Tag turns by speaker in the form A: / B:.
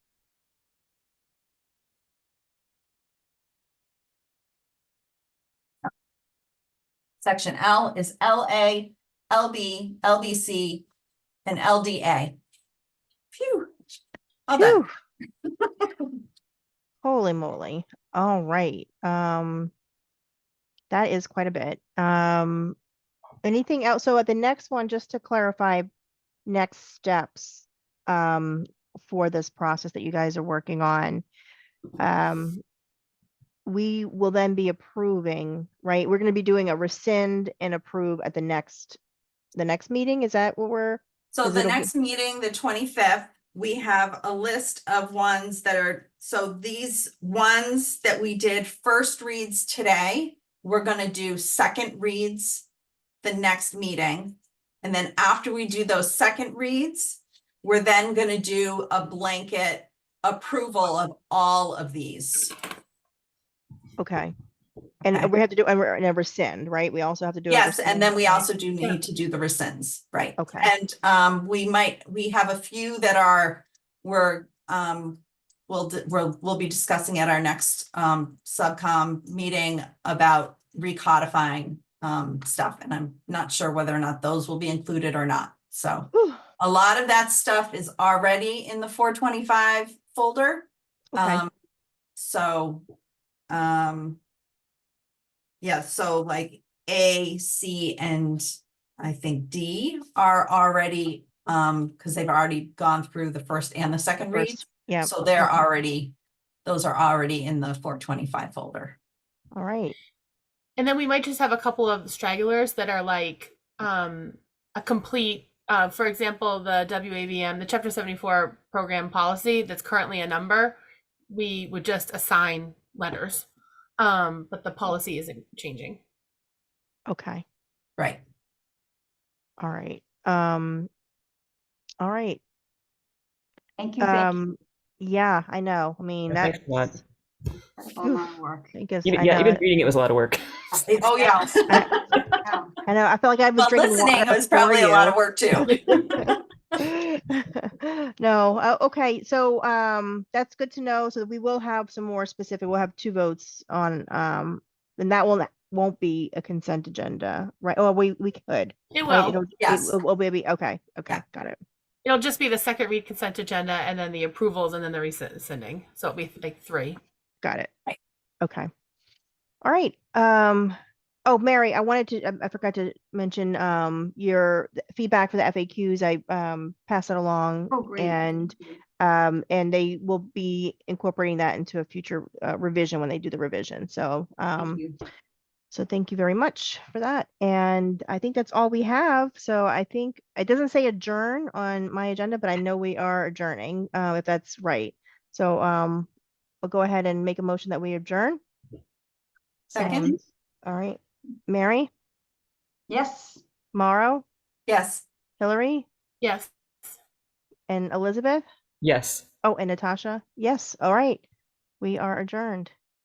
A: Section L is LA, LB, LBC, and LDA. Phew. All done.
B: Phew. Holy moly. All right. Um, that is quite a bit. Um, anything else? So at the next one, just to clarify, next steps, um, for this process that you guys are working on. Um, we will then be approving, right? We're going to be doing a rescind and approve at the next, the next meeting. Is that what we're?
C: So
B: Is
C: the
B: it a w-
C: next meeting, the twenty-fifth, we have a list of ones that are, so these ones that we did first reads today, we're gonna do second reads the next meeting. And then after we do those second reads, we're then gonna do a blanket approval of all of these.
B: Okay.
C: Okay.
B: And we have to do, and we're- and a rescind, right? We also have to do. a
C: Yes, and then
B: rescind,
C: we
B: right?
C: also do need to do the rescinds, right?
B: Okay,
C: And um, we might, we have a few that are, we're um, we'll, d- we'll, we'll be discussing at our next um, subcom meeting about recodifying um, stuff, and I'm not sure whether or not those will be included or not. So
B: Whew,
C: a lot of that stuff is already in the four twenty-five folder.
B: okay,
C: Um, so, um. Yeah, so like A, C, and I think D are already, um, because they've already gone through the first Mm-hmm. and the second read.
B: First, yeah,
C: So they're
B: okay.
C: already, those are already in the four twenty-five folder.
B: all right.
D: And then we might just have a couple of stragglers that are like um, a complete, uh, for example, the WAVM, the Chapter 74 program policy that's currently a number, we would just assign letters. Um, but the policy isn't changing.
B: Okay,
C: Right,
B: all right. Um, all right.
E: Thank you, Vicky,
B: Um, yeah, I know. I mean,
F: Yeah,
B: that.
F: thanks a lot.
E: for all my work.
B: I guess, I
F: Even, yeah, even
B: know,
F: reading it was a lot of work.
C: oh, yeah.
E: Wow.
B: I know, I felt like I was
C: But
B: drinking.
C: listening
B: water
C: is probably a
B: before
C: lot
B: you.
C: of work too.
B: No, uh, okay, so, um, that's good to know, so we will have some more specific, we'll have two votes on, um, and that will, won't be a consent agenda, right, Oh, we, we could. right?
D: It will.
B: It'll-
C: yes.
B: It will be, okay, okay, got it,
D: It'll just be the second read consent agenda and then the approvals and then the rescinding. So it'll be like three.
B: got it.
C: Right.
B: Okay. All right, um, oh, Mary, I wanted to, I- I forgot to mention, um, your th- feedback for the FAQs, I, um, passed it along.
E: Oh, great.
B: And,
E: Thank you.
B: um, and they will be incorporating that into a future uh, revision when they do the revision, so,
E: Thank
B: um,
E: you.
B: So thank you very much for that. And I think that's all we have. So I think it doesn't say adjourn on my agenda, but I know we are adjourning, uh, if that's right. So, um, we'll go ahead and make a motion that we adjourn.
C: Second,
B: All right. Mary,
E: Yes.
B: Mauro,
C: yes.
B: Hillary,
D: Yes.
B: and Elizabeth.
F: yes.
B: Oh, and Natasha. Yes. All right. We are adjourned.